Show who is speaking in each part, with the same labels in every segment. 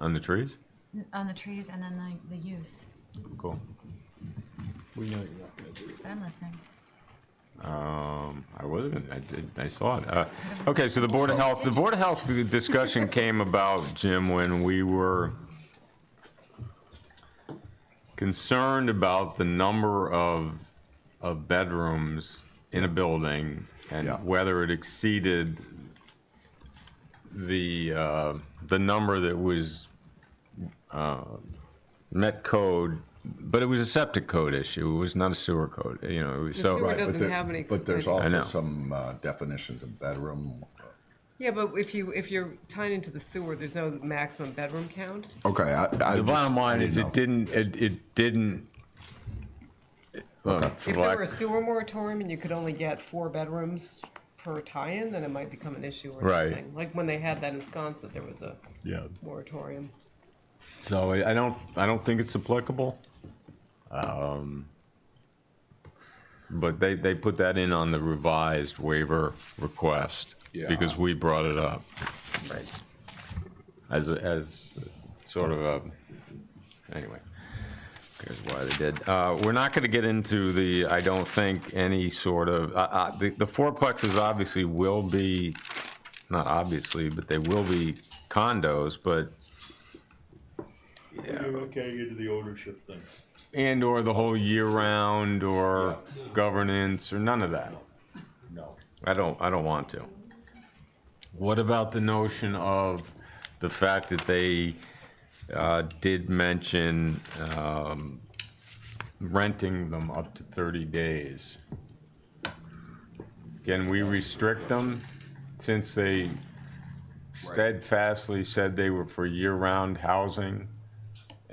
Speaker 1: on the trees?
Speaker 2: on the trees and then the, the use.
Speaker 1: Cool.
Speaker 3: We know you're not gonna do it.
Speaker 2: But I'm listening.
Speaker 1: Um, I wasn't, I did, I saw it. Uh, Okay, so the Board of Health, the Board of Health discussion came about, Jim, when we were concerned about the number of, of bedrooms in a building and
Speaker 4: Yeah.
Speaker 1: whether it exceeded the, uh, the number that was uh, met code, but it was a septic code issue. It was not a sewer code, you know, it was so.
Speaker 5: sewer It
Speaker 4: Right, but
Speaker 5: doesn't
Speaker 4: there-
Speaker 5: have any-
Speaker 4: But there's
Speaker 5: like-
Speaker 1: I know.
Speaker 4: also some uh, definitions of bedroom.
Speaker 5: Yeah, but if you, if you're tying into the sewer, there's no maximum bedroom count?
Speaker 4: Okay, I.
Speaker 1: The bottom line is it didn't, it, it didn't. Look, for
Speaker 5: If there
Speaker 1: lack-
Speaker 5: were a sewer moratorium and you could only get four bedrooms per tie-in, then it might become an issue or
Speaker 1: Right.
Speaker 5: something. Like when they had that in Sconset, there was a moratorium.
Speaker 1: So I I don't, I don't think it's applicable. Um, But they, they put that in on the revised waiver request
Speaker 4: Yeah.
Speaker 1: because we brought it up
Speaker 5: Right.
Speaker 1: as, a- as sort of a, anyway. Here's why they did. Uh, We're not going to get into the, I don't think, any sort of, uh, uh, the the fourplexes obviously will be, not obviously, but they will be condos, but
Speaker 6: You're okay into the ownership thing.
Speaker 1: And or the whole year round or governance or none of that.
Speaker 6: No.
Speaker 1: I don't, I don't want to. What about the notion of the fact that they uh, did mention um, renting them up to 30 days? Can we restrict them since they steadfastly said they were for year-round housing?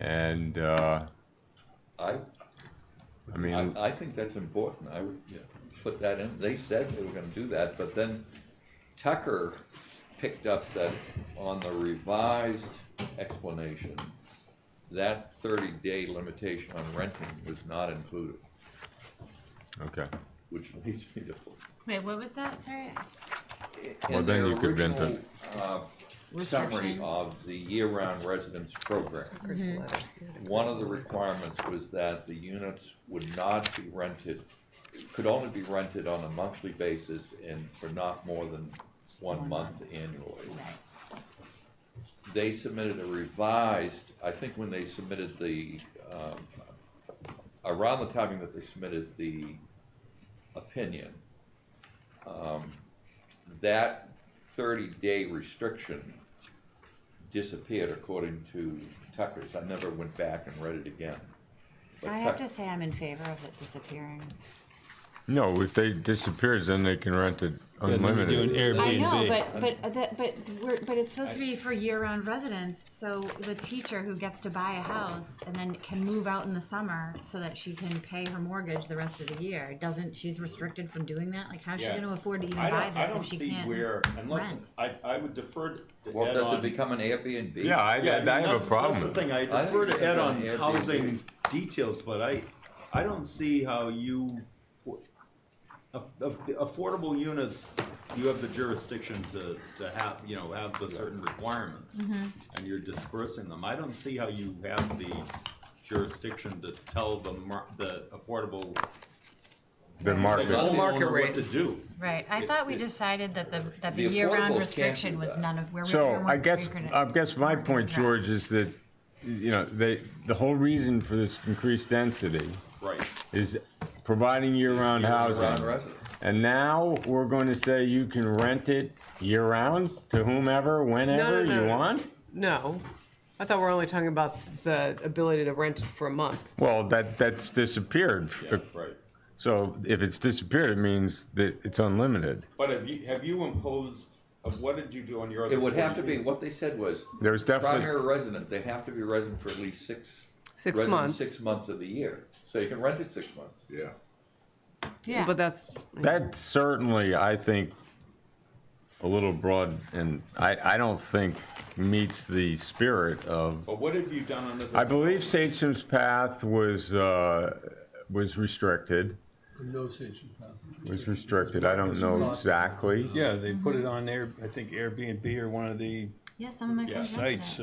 Speaker 1: And, uh,
Speaker 7: I,
Speaker 1: I mean,
Speaker 7: I, I think that's important, I would put that in, they said they were gonna do that, but then Tucker picked up that on the revised explanation, that thirty-day limitation on renting was not included,
Speaker 1: okay.
Speaker 7: which leads me to.
Speaker 2: Wait, what was that? Sorry.
Speaker 7: in
Speaker 1: Well, then
Speaker 7: their
Speaker 1: you could rent
Speaker 7: original, uh, Summary
Speaker 2: Restriction.
Speaker 7: of the year-round residence program. Mm-hmm.
Speaker 5: Chris Leonard.
Speaker 7: One of the requirements was that the units would not be rented, could only be rented on a monthly basis and for not more than one month annually. They submitted a revised, I think when they submitted the, um, around the timing that they submitted the opinion, um, that thirty-day restriction disappeared according to Tucker's. I never went back and read it again. But
Speaker 8: I have
Speaker 7: Tuck-
Speaker 8: to say I'm in favor of it disappearing.
Speaker 1: No, if they disappears, then they can rent it
Speaker 9: Yeah, then we do an
Speaker 1: unlimited.
Speaker 9: Airbnb.
Speaker 8: I know, but but that but we're, but it's supposed to be for year-round residents. So the teacher who gets to buy a house and then can move out in the summer so that she can pay her mortgage the rest of the year doesn't she's restricted from doing that? Like how's
Speaker 10: Yeah.
Speaker 8: she going to afford to even
Speaker 10: I
Speaker 8: buy
Speaker 10: don't, I
Speaker 8: this
Speaker 10: don't
Speaker 8: if she
Speaker 10: see
Speaker 8: can't?
Speaker 10: where, unless,
Speaker 8: rent?
Speaker 10: I, I would defer to
Speaker 7: Well,
Speaker 10: Ed
Speaker 7: does it
Speaker 10: on.
Speaker 7: become an Airbnb?
Speaker 1: Yeah, I,
Speaker 10: Yeah, mean,
Speaker 1: I, I have
Speaker 10: that's-
Speaker 1: a problem
Speaker 10: That's
Speaker 1: with
Speaker 10: the
Speaker 1: it.
Speaker 10: thing, I
Speaker 7: I
Speaker 10: defer
Speaker 7: think
Speaker 10: to Ed
Speaker 7: it's
Speaker 10: on
Speaker 7: an Airbnb.
Speaker 10: housing details, but I, I don't see how you, of, of the affordable units, you have the jurisdiction to, to have, you know, have the certain requirements.
Speaker 8: Mm-hmm.
Speaker 10: And you're dispersing them. I don't see how you have the jurisdiction to tell the mar, the affordable.
Speaker 1: The
Speaker 10: the
Speaker 1: market,
Speaker 5: Whole market
Speaker 10: owner
Speaker 5: rate.
Speaker 10: What to do.
Speaker 2: Right. I thought we decided that the that the,
Speaker 7: The affordable
Speaker 2: year-round
Speaker 7: can't
Speaker 2: restriction
Speaker 7: do
Speaker 2: was
Speaker 7: that.
Speaker 2: none of where we we
Speaker 1: so
Speaker 2: weren't
Speaker 1: I guess, uh,
Speaker 2: anchored in-
Speaker 1: I guess my
Speaker 2: weren't
Speaker 1: point, George,
Speaker 2: addressed.
Speaker 1: is that, you know, they, the whole reason for this increased density
Speaker 10: Right.
Speaker 1: is providing year-round
Speaker 7: Year-round
Speaker 1: housing.
Speaker 7: residence.
Speaker 1: And now we're going to say you can rent it year-round to whomever, whenever
Speaker 5: no,
Speaker 1: you
Speaker 5: no.
Speaker 1: want?
Speaker 5: No, I thought we we're only talking about the ability to rent it for a month.
Speaker 1: Well, that, that's disappeared.
Speaker 10: Yeah, right.
Speaker 1: So if it's disappeared, it means that it's unlimited.
Speaker 10: But have you, have you imposed, uh, what did you do on your other?
Speaker 7: It would have to
Speaker 10: 40?
Speaker 7: be, what they said was,
Speaker 1: There's definitely.
Speaker 7: primary resident, they have to be resident for at least six.
Speaker 5: Six
Speaker 7: resident
Speaker 5: months.
Speaker 7: Six months of the year, so you can rent it six months.
Speaker 4: Yeah.
Speaker 8: yeah.
Speaker 5: But that's,
Speaker 1: That's certainly, I think, a little broad, and I, I don't think meets the spirit of,
Speaker 10: But what have you done on the?
Speaker 1: I believe Satcham's Path was, uh, was restricted,
Speaker 3: No station path.
Speaker 1: was restricted, I don't know exactly.
Speaker 9: Yeah, they put it on Air, I think Airbnb or one of the
Speaker 2: Yeah, some of my friends
Speaker 9: sites.